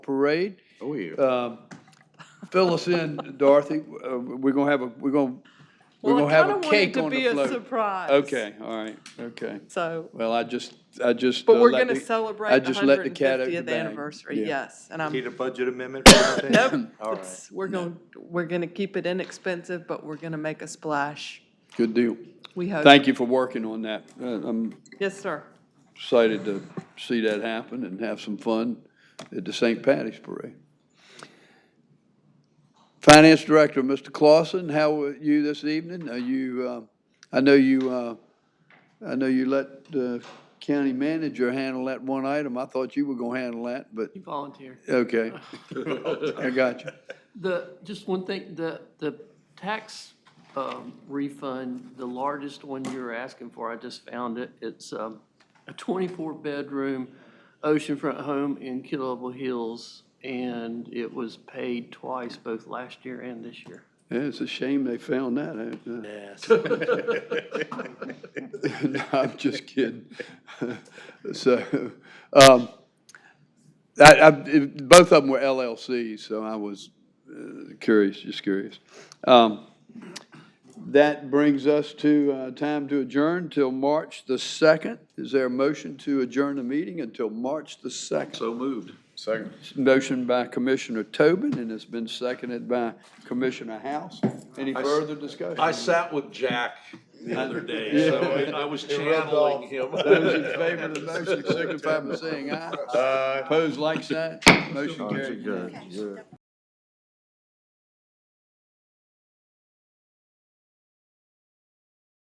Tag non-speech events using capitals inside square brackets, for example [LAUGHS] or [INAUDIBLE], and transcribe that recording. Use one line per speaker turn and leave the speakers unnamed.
parade.
Oh, yeah.
Um, Fill us in, Dorothy. Uh, We're going to have a, we're going, we're
Well,
going
I
to have a
kinda wanted
cake
to
on
be
the
a
float.
surprise.
Okay, all right, okay.
So,
Well, I just, I just.
but
uh,
we're
let
going to
the-
celebrate
I
the
just let the cat out of the
150th
bag.
anniversary,
Yeah.
yes. And I'm,
Need a budget amendment for
[CLEARS THROAT]
anything?
nope,
All right.
it's- we're going, we're going to keep it inexpensive, but we're going to make a splash,
Good deal.
we hope.
Thank you for working on that. Uh, I'm
Yes, sir.
excited to see that happen and have some fun at the St. Patty's Parade. Finance Director, Mr. Clausen, how are you this evening? Are you, uh, I know you, uh, I know you let the county manager handle that one item. I thought you were going to handle that, but,
You volunteer.
okay. I got you.
The, just one thing, the, the tax um, refund, the largest one you were asking for, I just found it. It's um, a 24-bedroom oceanfront home in Killable Hills, and it was paid twice, both last year and this year.
Yeah, It's a shame they found that. out, uh,
Yes.
No, I'm just kidding. [LAUGHS] So, um, I, I, it- both of them were LLCs, so I was uh, curious, just curious. Um, that brings us to, uh, time to adjourn till March the second. Is there a motion to adjourn the meeting until March the second?
So moved. Second.
Motion by Commissioner Tobin, and it's been seconded by Commissioner House. Any
I s-
further discussion?
I sat with Jack the other day, so I- I was channeling him.
Those in favor of the motion signify by saying aye. Opposed, like sign. Motion carried.
Good.